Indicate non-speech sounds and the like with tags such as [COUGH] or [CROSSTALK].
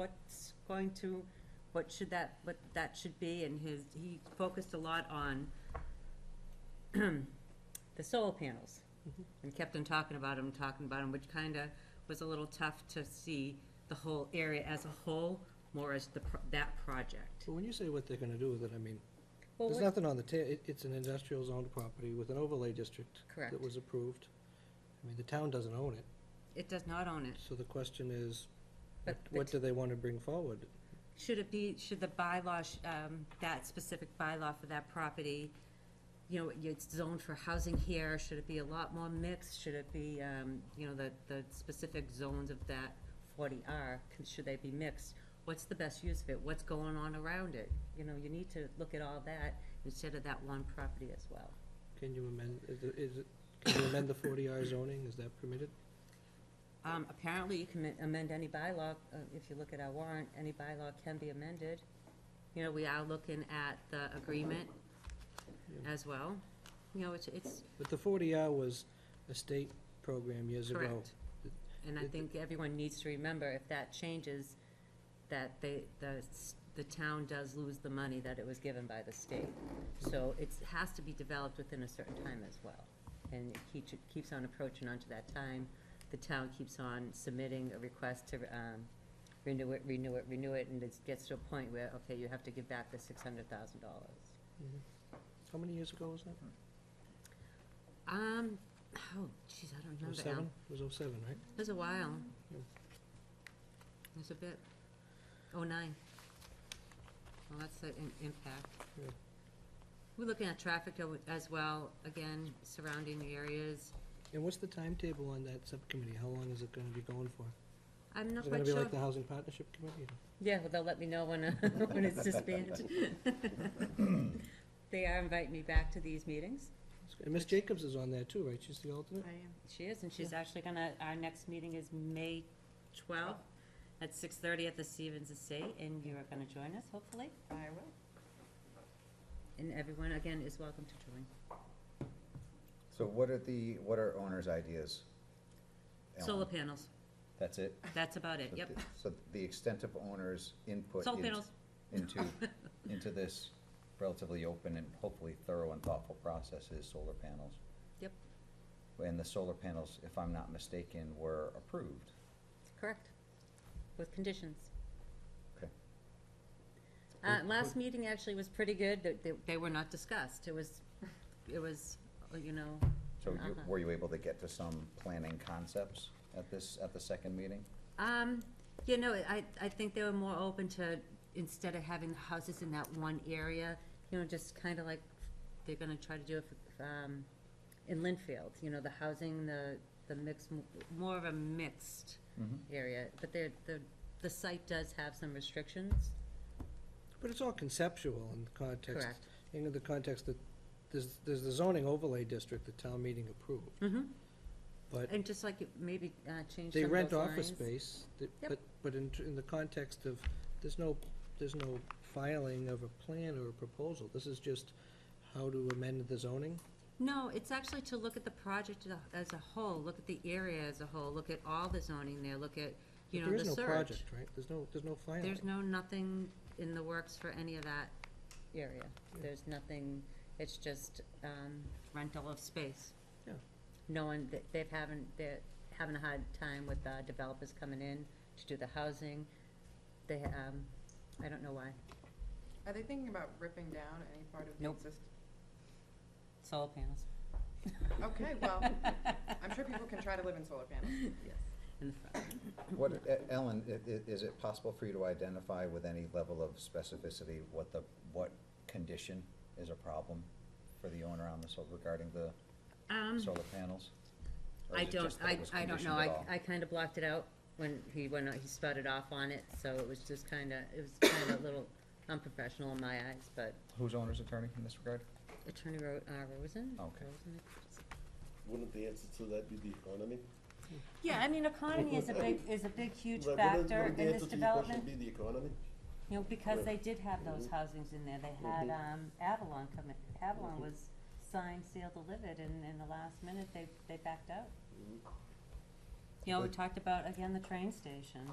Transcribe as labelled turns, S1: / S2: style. S1: what's going to, what should that, what that should be, and his, he focused a lot on [CLEARS THROAT] the solar panels, and kept on talking about them, talking about them, which kinda was a little tough to see the whole area as a whole, more as the, pro- that project.
S2: But when you say what they're gonna do with it, I mean,
S1: Well,
S2: there's
S1: what-
S2: nothing on the ta, it, it's an industrial zoned property with an overlay district.
S1: Correct.
S2: That was approved. I mean, the town doesn't own it,
S1: It does not own it.
S2: so the question is,
S1: But
S2: what-
S1: the
S2: what
S1: t-
S2: do they wanna bring forward?
S1: Should it be, should the bylaw, sh- um, that specific bylaw for that property, you know, it's zoned for housing here, should it be a lot more mixed? Should it be, um, you know, the, the specific zones of that forty R, should they be mixed? What's the best use of it? What's going on around it? You know, you need to look at all that instead of that one property as well.
S2: Can you amend, is it- is it, can you amend the forty R zoning, is that permitted?
S1: Um, apparently you can amend any bylaw, uh, if you look at our warrant, any bylaw can be amended. You know, we are looking at the agreement
S2: Yeah.
S1: as well. You know, it's, it's
S2: But the forty R was a state program years ago.
S1: correct. And I
S2: It-
S1: think everyone needs to remember, if that changes, that they, the, s- the town does lose the money that it was given by the state. So it has to be developed within a certain time as well. And it keeps, keeps on approaching onto that time. The town keeps on submitting a request to, um, renew it, renew it, renew it, and it gets to a point where, okay, you have to give back the six hundred thousand dollars.
S2: Mhm. How many years ago was that?
S1: Um, oh, jeez, I don't
S2: Oh
S1: remember now.
S2: seven? It was oh seven, right?
S1: It was a while.
S2: Yeah.
S1: It was a bit. Oh, nine. Well, that's the im- impact.
S2: Yeah.
S1: We're looking at traffic o- as well, again, surrounding areas.
S2: And what's the timetable on that subcommittee? How long is it gonna be going for?
S1: I'm not
S2: Is it gonna
S1: quite
S2: be
S1: sure.
S2: like the Housing Partnership Committee?
S1: Yeah, well, they'll let me know when, [LAUGHS] uh, when it's
S2: [LAUGHS]
S1: disbanded. They are inviting me back to these meetings.
S2: And Miss Jacobs is on there too, right? She's the alternate?
S1: I am. She is, and she's actually gonna, our next meeting is May twelfth at six thirty at the Stevens Estate, and you are gonna join us, hopefully.
S3: I will.
S1: And everyone, again, is welcome to join.
S4: So what are the, what are owners' ideas?
S1: Solar
S4: Ellen?
S1: panels,
S4: That's it?
S1: that's about it,
S4: So
S1: yep.
S4: the- So the extent of owners' input.
S1: Solar
S4: in-
S1: panels, [LAUGHS]
S4: Into, into this relatively open and hopefully thorough and thoughtful process is solar panels.
S1: Yep.
S4: And the solar panels, if I'm not mistaken, were approved.
S1: correct, with conditions.
S4: Okay.
S1: Uh, last meeting actually was pretty good, they, they- they were not discussed, it was, it was, uh, you know,
S4: So you-
S1: Uh-huh.
S4: were you able to get to some planning concepts at this, at the second meeting?
S1: Um, you know, I, I think they were more open to, instead of having the houses in that one area, you know, just kinda like, they're gonna try to do it, for, um, in Linfield, you know, the housing, the, the mix, more of a mixed
S4: Mm-hmm.
S1: area, but there, the, the site does have some restrictions,
S2: But it's all conceptual in the context.
S1: correct?
S2: In the context that, there's, there's the zoning overlay district the town meeting approved,
S1: Mm-hmm,
S2: but
S1: and just like, it maybe, uh, change some
S2: they
S1: of
S2: rent
S1: those
S2: office
S1: lines.
S2: space, that-
S1: Yep.
S2: but, but in, tr- in the context of, there's no, there's no filing of a plan or a proposal. This is just how to amend the zoning.
S1: No, it's actually to look at the project as a- as a whole, look at the area as a whole, look at all the zoning there, look at, you
S2: But
S1: know, the
S2: There is no
S1: search.
S2: project, right? There's no, there's no filing.
S1: There's no, nothing in the works for any of that area.
S2: Yeah.
S1: There's nothing, it's just, um, rental of space.
S2: Yeah.
S1: No one, they- they've haven't, they're having a hard time with, uh, developers coming in to do the housing. They, um, I don't know why.
S3: Are they thinking about ripping down any part of the
S1: Nope.
S3: existing?
S1: Solar panels.
S3: Okay,
S1: [LAUGHS]
S3: well, I'm sure people can try to live in solar panels.
S1: Yes, in the front.
S4: What, E- Ellen, i- i- is it possible for you to identify with any level of specificity what the, what condition is a problem for the owner on the sol regarding the
S1: Um,
S4: solar panels? Or
S1: I
S4: is it
S1: don't,
S4: just that it
S1: I,
S4: was
S1: I don't know,
S4: conditioned at
S1: I,
S4: all?
S1: I kinda blocked it out when he went, out- he sputtered off on it, so it was just kinda, it was kinda a little unprofessional in my eyes, but
S4: Who's owner's attorney in this regard?
S1: Attorney Ro- uh, Rosen?
S4: Okay.
S1: Rosen?
S5: Wouldn't the answer to that be the economy?
S1: Yeah, I mean, economy is a big, is a big, huge
S5: Like, wouldn't-
S1: factor
S5: wouldn't the
S1: in this
S5: answer to your question
S1: development.
S5: Be the economy?
S1: You know, because they did have
S5: Mm-hmm.
S1: those housings in there, they had,
S5: Mhm.
S1: um, Avalon come in, Avalon
S5: Mhm.
S1: was signed, sealed, delivered, and in the last minute, they, they backed out.
S5: Mhm.
S1: You know, we
S4: But-
S1: talked about, again, the train station,